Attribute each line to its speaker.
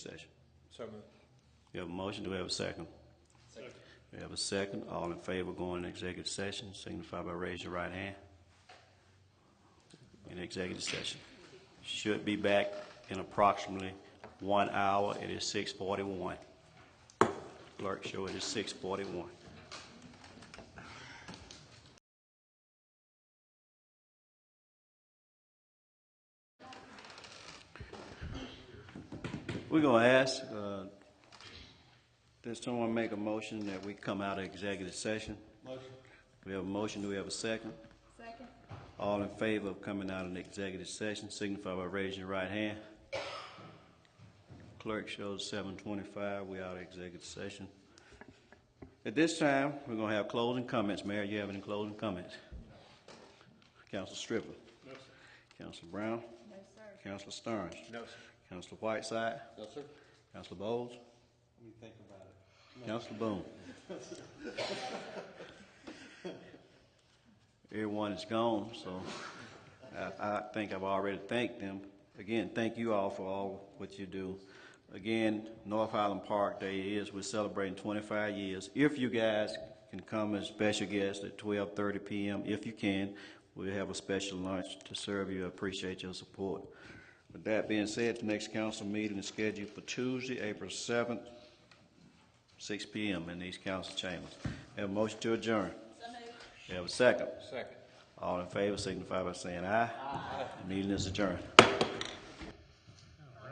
Speaker 1: So moved.
Speaker 2: We have a motion, do we have a second? We have a second, all in favor going into executive session, signify by raise your right hand. In executive session. Should be back in approximately one hour, it is six forty-one. Clerk, show it is six forty-one. We're gonna ask, uh, does someone make a motion that we come out of executive session? Motion. We have a motion, do we have a second?
Speaker 3: Second.
Speaker 2: All in favor of coming out of the executive session, signify by raising your right hand. Clerk shows seven twenty-five, we out of executive session. At this time, we're gonna have closing comments. Mayor, you have any closing comments? Council Stripper? No, sir. Counsel Brown?
Speaker 3: No, sir.
Speaker 2: Council Stearns?
Speaker 1: No, sir.
Speaker 2: Council Whiteside?
Speaker 1: No, sir.
Speaker 2: Council Bowles?
Speaker 1: Let me think about it.
Speaker 2: Council Boone. Everyone is gone, so I, I think I've already thanked them. Again, thank you all for all what you do. Again, North Highland Park Day is, we're celebrating twenty-five years. If you guys can come as special guests at twelve thirty PM, if you can, we'll have a special lunch to serve you. I appreciate your support. With that being said, the next council meeting is scheduled for Tuesday, April seventh, 6 PM in these council chambers. Have a motion to adjourn.
Speaker 3: So moved.
Speaker 2: Have a second.
Speaker 1: Second.
Speaker 2: All in favor signify by saying aye. Meeting is adjourned.